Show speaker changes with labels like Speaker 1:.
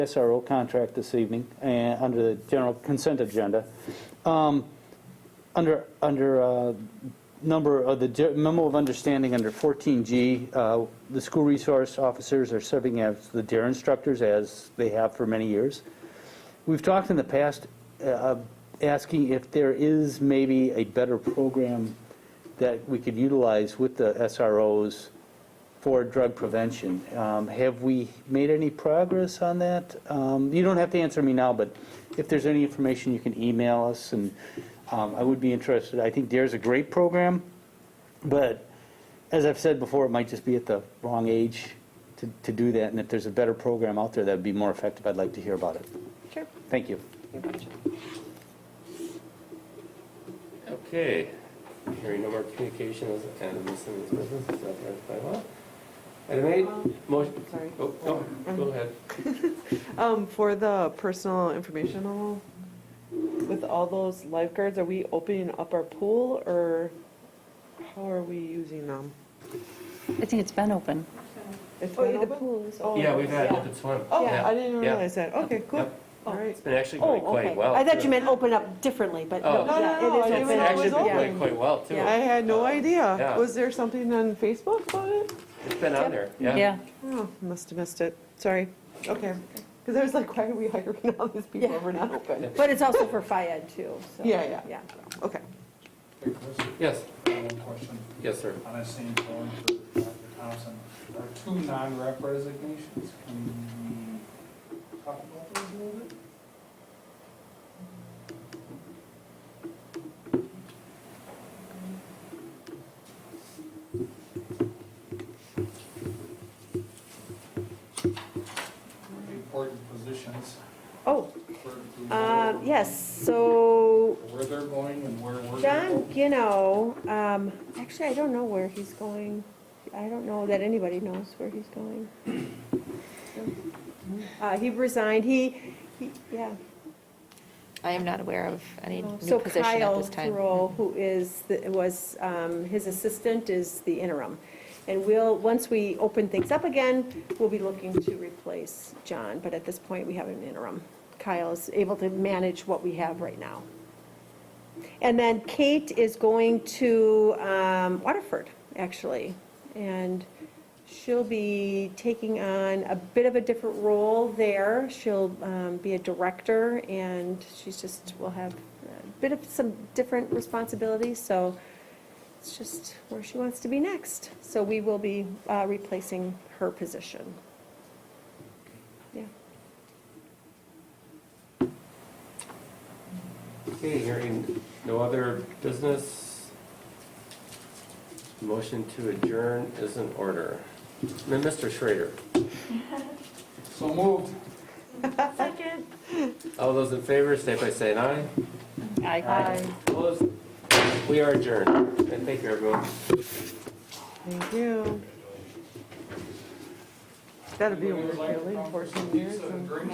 Speaker 1: SRO contract this evening, and under the general consent agenda. Um, Under, under uh, number of the ge- memo of understanding under 14G, uh, the school resource officers are serving as the DARE instructors, as they have for many years. We've talked in the past, uh, asking if there is maybe a better program that we could utilize with the SROs for drug prevention. Um, Have we made any progress on that? Um, You don't have to answer me now, but if there's any information, you can email us, and um, I would be interested. I think DARE's a great program, but as I've said before, it might just be at the wrong age to to do that, and if there's a better program out there that'd be more effective, I'd like to hear about it.
Speaker 2: Sure.
Speaker 1: Thank you.
Speaker 3: Okay, hearing no more communications and miscellaneous business, is authorized by law. Item eight, motion,
Speaker 2: Sorry.
Speaker 3: oh, no,
Speaker 4: Mm-hmm.
Speaker 3: go ahead.
Speaker 2: Um, for the personal informational, with all those lifeguards, are we opening up our pool or how are we using them?
Speaker 5: I think it's been open.
Speaker 2: It's
Speaker 4: Oh,
Speaker 2: been
Speaker 4: yeah, the
Speaker 2: open?
Speaker 4: pool is
Speaker 2: Oh,
Speaker 4: open.
Speaker 3: Yeah, we've had open swim.
Speaker 2: Oh,
Speaker 3: Yeah,
Speaker 2: I didn't
Speaker 3: yeah.
Speaker 2: realize that. Okay, cool.
Speaker 3: Yep.
Speaker 2: All right.
Speaker 3: It's been actually
Speaker 4: Oh,
Speaker 3: going quite
Speaker 4: okay.
Speaker 3: well.
Speaker 4: I thought
Speaker 3: too.
Speaker 4: you meant open up differently, but no,
Speaker 3: Oh. No, no,
Speaker 4: yeah,
Speaker 2: no, I
Speaker 4: it is
Speaker 2: didn't
Speaker 3: It's
Speaker 2: even
Speaker 4: open.
Speaker 2: know it
Speaker 3: actually
Speaker 2: was
Speaker 3: been going
Speaker 2: open.
Speaker 3: quite well, too.
Speaker 2: I had no
Speaker 3: Uh,
Speaker 2: idea.
Speaker 3: yeah.
Speaker 2: Was there something on Facebook about it?
Speaker 3: It's been on there, yeah.
Speaker 5: Yeah.
Speaker 2: Oh, must have missed it. Sorry. Okay. Because I was like, why are we hiring all these people
Speaker 4: Yeah.
Speaker 2: if we're not open?
Speaker 4: But it's also for FIAD too, so.
Speaker 2: Yeah, yeah.
Speaker 4: Yeah.
Speaker 2: Okay.
Speaker 6: Hey, Chris,
Speaker 3: Yes,
Speaker 6: one question.
Speaker 3: yes, sir.
Speaker 6: On that same phone for Dr. Thompson, there are two non-rep resignations. Can we talk about those a little bit? Important positions,
Speaker 4: Oh,
Speaker 6: where,
Speaker 4: um,
Speaker 6: who-
Speaker 4: yes, so
Speaker 6: where they're going and where we're.
Speaker 4: John
Speaker 6: going.
Speaker 4: Gino, um, actually, I don't know where he's going. I don't know that anybody knows where he's going. Uh, he resigned, he, he- yeah.
Speaker 7: I am not aware of any new
Speaker 4: So
Speaker 7: position at
Speaker 4: Kyle
Speaker 7: this time.
Speaker 4: Thoreau, who is, the- was, um, his assistant is the interim. And we'll, once we open things up again, we'll be looking to replace John, but at this point, we have an interim. Kyle is able to manage what we have right now. And then Kate is going to um, Waterford, actually, and she'll be taking on a bit of a different role there. She'll um, be a director, and she's just, will have a bit of some different responsibilities, so it's just where she wants to be next. So we will be uh, replacing her position. Yeah.
Speaker 3: Okay, hearing no other business. Motion to adjourn is in order. Then Mr. Schrader,
Speaker 6: So moved.
Speaker 3: all those in favor, say by saying aye.
Speaker 5: I.
Speaker 3: Opposed? We are adjourned. And thank you, everyone.
Speaker 2: Thank you. That'd be really important years. and-